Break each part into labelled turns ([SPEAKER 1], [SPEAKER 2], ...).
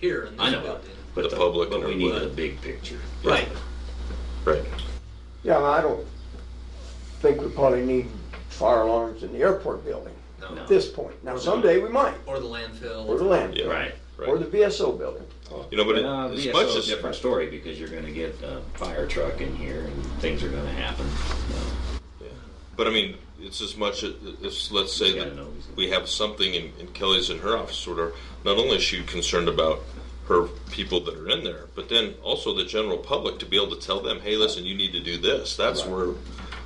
[SPEAKER 1] here in
[SPEAKER 2] I
[SPEAKER 1] this
[SPEAKER 2] know.
[SPEAKER 1] building.
[SPEAKER 2] But
[SPEAKER 3] The
[SPEAKER 2] the-
[SPEAKER 3] public
[SPEAKER 2] But
[SPEAKER 3] and
[SPEAKER 2] we need the
[SPEAKER 3] everybody.
[SPEAKER 2] big picture.
[SPEAKER 1] Right.
[SPEAKER 3] Right.
[SPEAKER 4] Yeah, and I don't think we probably need fire alarms in the airport building
[SPEAKER 1] No.
[SPEAKER 2] No.
[SPEAKER 4] at this point. Now someday we might,
[SPEAKER 1] Or the landfill.
[SPEAKER 4] or the land,
[SPEAKER 3] Yeah.
[SPEAKER 2] Right.
[SPEAKER 4] or the
[SPEAKER 3] Right.
[SPEAKER 4] VSO building.
[SPEAKER 3] You know, but it-
[SPEAKER 2] Uh,
[SPEAKER 3] as
[SPEAKER 2] VSO
[SPEAKER 3] much
[SPEAKER 2] is
[SPEAKER 3] as
[SPEAKER 2] a different story because you're gonna get a fire truck in here and things are gonna happen. Uh,
[SPEAKER 3] But I mean, it's as much as, as let's say
[SPEAKER 2] Yeah,
[SPEAKER 3] that
[SPEAKER 2] no, he's-
[SPEAKER 3] we have something in, in Kelly's in her office order. Not only is she concerned about her people that are in there, but then also the general public to be able to tell them, hey, listen, you need to do this. That's where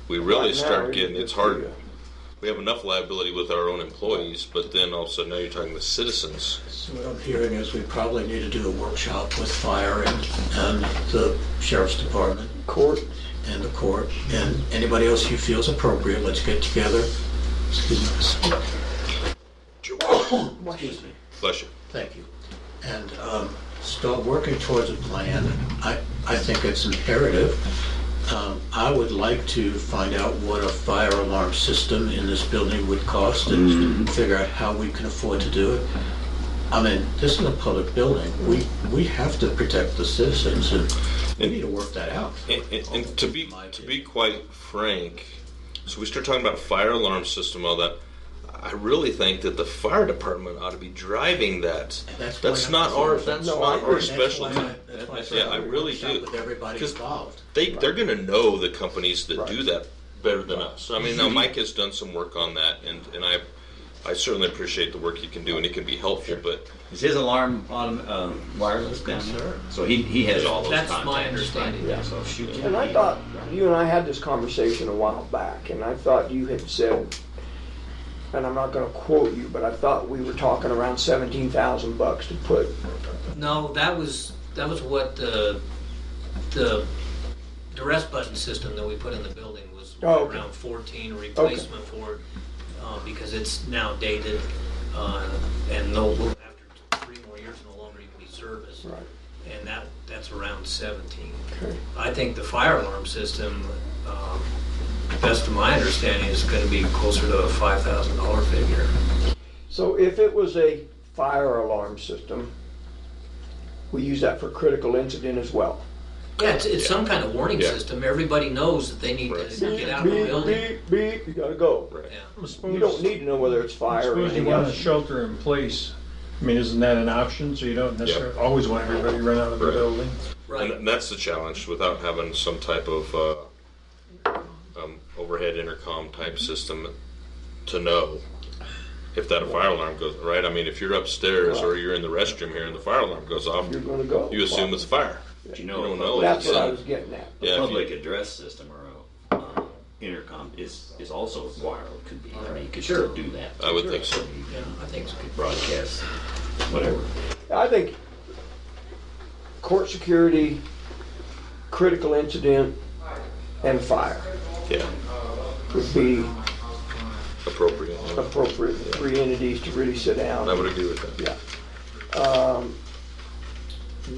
[SPEAKER 3] we really
[SPEAKER 4] Right now,
[SPEAKER 3] start
[SPEAKER 4] we
[SPEAKER 3] getting.
[SPEAKER 4] need
[SPEAKER 3] It's
[SPEAKER 4] to
[SPEAKER 3] hard.
[SPEAKER 4] do
[SPEAKER 3] We have enough liability with our own employees, but then also now you're talking the citizens.
[SPEAKER 5] So what I'm hearing is we probably need to do a workshop with fire and, and the sheriff's department
[SPEAKER 4] a Court,
[SPEAKER 5] and the court and anybody else who feels appropriate, let's get together. Excuse me. Excuse me.
[SPEAKER 3] Bless you.
[SPEAKER 5] Thank you. And um, start working towards a plan. I, I think it's imperative. Um, I would like to find out what a fire alarm system in this building would cost
[SPEAKER 3] Mm-hmm.
[SPEAKER 5] and figure out how we can afford to do it. I mean, this is a public building. We, we have to protect the citizens and we need to work that out.
[SPEAKER 3] And, and, and to be
[SPEAKER 5] My
[SPEAKER 3] to be
[SPEAKER 5] opinion.
[SPEAKER 3] quite frank, so we start talking about fire alarm system, all that. I really think that the fire department ought to be driving that.
[SPEAKER 5] That's why
[SPEAKER 3] not
[SPEAKER 5] I'm-
[SPEAKER 3] our that's
[SPEAKER 4] No, I
[SPEAKER 3] not our
[SPEAKER 4] agree.
[SPEAKER 5] That's why
[SPEAKER 3] specialty.
[SPEAKER 5] I- that's why I said
[SPEAKER 3] Yeah, I really
[SPEAKER 5] workshop
[SPEAKER 3] do.
[SPEAKER 5] With everybody
[SPEAKER 3] 'Cause
[SPEAKER 5] involved.
[SPEAKER 3] They they're going to know the companies that
[SPEAKER 4] Right.
[SPEAKER 3] do that better than us. I
[SPEAKER 5] Mm-hmm.
[SPEAKER 3] mean, now Mike has done some work on that, and and I I certainly appreciate the work he can do, and it can be helpful. But
[SPEAKER 2] Is his alarm on, um, wireless down there?
[SPEAKER 5] Sure.
[SPEAKER 2] So he, he has all those
[SPEAKER 1] That's
[SPEAKER 2] contacts.
[SPEAKER 1] my understanding.
[SPEAKER 4] Yeah.
[SPEAKER 2] So shoot.
[SPEAKER 4] and I thought, you and I had this conversation a while back, and I thought you had said, and I'm not gonna quote you, but I thought we were talking around seventeen thousand bucks to put
[SPEAKER 1] No, that was, that was what the, the duress button system that we put in the building was
[SPEAKER 4] Oh, okay.
[SPEAKER 1] around fourteen, replacement for it, uh, because it's now dated, uh, and no, after three more years, no longer even be serviced.
[SPEAKER 4] Right.
[SPEAKER 1] And that, that's around seventeen.
[SPEAKER 4] Okay.
[SPEAKER 1] I think the fire alarm system, um, best of my understanding, is gonna be closer to a five thousand dollar figure.
[SPEAKER 4] So if it was a fire alarm system, we use that for critical incident as well.
[SPEAKER 1] Yeah, it's, it's some kind of warning
[SPEAKER 3] Yeah.
[SPEAKER 1] system. Everybody knows that they need
[SPEAKER 3] Right.
[SPEAKER 1] to get out of the
[SPEAKER 4] Beep,
[SPEAKER 1] building.
[SPEAKER 4] beep, beep, you gotta go.
[SPEAKER 3] right,
[SPEAKER 1] Yeah.
[SPEAKER 6] I suppose-
[SPEAKER 4] You don't need to know whether it's
[SPEAKER 6] I
[SPEAKER 4] fire or
[SPEAKER 6] Suppose you
[SPEAKER 4] anything
[SPEAKER 6] want to
[SPEAKER 4] else.
[SPEAKER 6] shelter in place. I mean, isn't that an option? So you don't necessarily always want everybody run out of the
[SPEAKER 3] Right.
[SPEAKER 6] building.
[SPEAKER 1] Right.
[SPEAKER 3] and that's the challenge without having some type of uh, um, overhead intercom type system to know if that fire alarm goes right. I mean, if you're upstairs or you're in the restroom here and the fire alarm goes off,
[SPEAKER 4] You're gonna go.
[SPEAKER 3] you assume it's a fire.
[SPEAKER 2] But you
[SPEAKER 3] You
[SPEAKER 2] know,
[SPEAKER 3] don't know.
[SPEAKER 4] That's what I was getting at.
[SPEAKER 2] the
[SPEAKER 3] Yeah, if you-
[SPEAKER 2] public address system or uh, intercom is is also wireless. Could be. I mean, you could still do that.
[SPEAKER 3] I would think so.
[SPEAKER 1] Yeah, I think it's good.
[SPEAKER 2] Broadcast, whatever.
[SPEAKER 4] I think court security, critical incident, and fire
[SPEAKER 3] Yeah,
[SPEAKER 4] would be
[SPEAKER 3] appropriate.
[SPEAKER 4] appropriate three entities to really sit down.
[SPEAKER 3] I would agree with that.
[SPEAKER 4] Yeah. Um,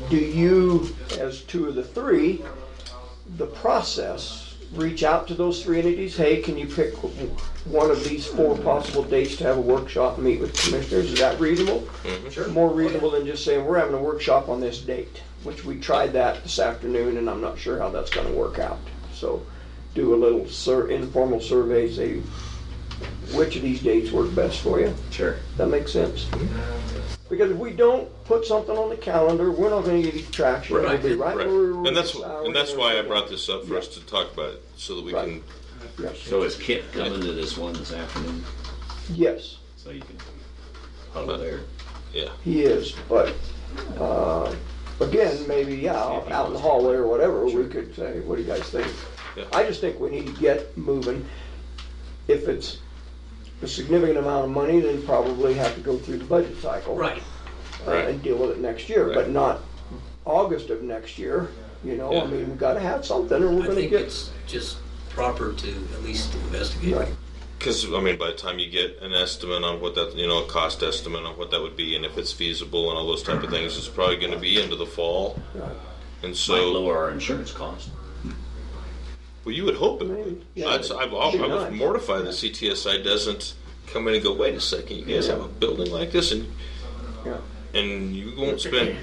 [SPEAKER 4] Do you, as two of the three, the process, reach out to those three entities? Hey, can you pick one of these four possible dates to have a workshop and meet with commissioners? Is that reasonable? More reasonable than just saying, we're having a workshop on this date, which we tried that this afternoon, and I'm not sure how that's gonna work out. So do a little sur- informal survey, say, which of these dates work best for you?
[SPEAKER 2] Sure.
[SPEAKER 4] That makes sense. Because if we don't put something on the calendar, we're not gonna get any traction. It'll be right
[SPEAKER 3] Right,
[SPEAKER 4] where we were
[SPEAKER 3] and that's
[SPEAKER 4] this hour
[SPEAKER 3] and that's
[SPEAKER 4] and
[SPEAKER 3] why I
[SPEAKER 4] everything.
[SPEAKER 3] brought this up for us to talk about it, so that we can.
[SPEAKER 4] Yes.
[SPEAKER 2] So is Kit coming to this one this afternoon?
[SPEAKER 4] Yes,
[SPEAKER 2] So you can huddle there.
[SPEAKER 3] Yeah,
[SPEAKER 4] he is, but, uh, again, maybe, yeah, out out in the hallway or whatever, we could say, what do you guys think?
[SPEAKER 3] Yeah.
[SPEAKER 4] I just think we need to get moving. If it's a significant amount of money, then probably have to go through the budget cycle.
[SPEAKER 1] Right.
[SPEAKER 4] uh,
[SPEAKER 3] Right.
[SPEAKER 4] and deal with it next year,
[SPEAKER 3] Right.
[SPEAKER 4] but not August of next year. You know,
[SPEAKER 3] Yeah.
[SPEAKER 4] I mean, we gotta have something or we're
[SPEAKER 1] I
[SPEAKER 4] gonna
[SPEAKER 1] think
[SPEAKER 4] get.
[SPEAKER 1] it's just proper to at least investigate.
[SPEAKER 4] Right.
[SPEAKER 3] because I mean, by the time you get an estimate on what that you know a cost estimate on what that would be, and if it's feasible and all those type of things, it's probably going to be into the fall,
[SPEAKER 4] Right.
[SPEAKER 3] and
[SPEAKER 2] Might
[SPEAKER 3] so
[SPEAKER 2] lower our insurance cost.
[SPEAKER 3] well, you would hope it.
[SPEAKER 4] Maybe.
[SPEAKER 3] would.
[SPEAKER 4] Yeah.
[SPEAKER 3] That's, I've, al-
[SPEAKER 4] Should
[SPEAKER 3] I was
[SPEAKER 4] not.
[SPEAKER 3] mortified that CTSI doesn't come in and go, wait a second, you guys have a building like this, and
[SPEAKER 4] Yeah.
[SPEAKER 3] and you won't spend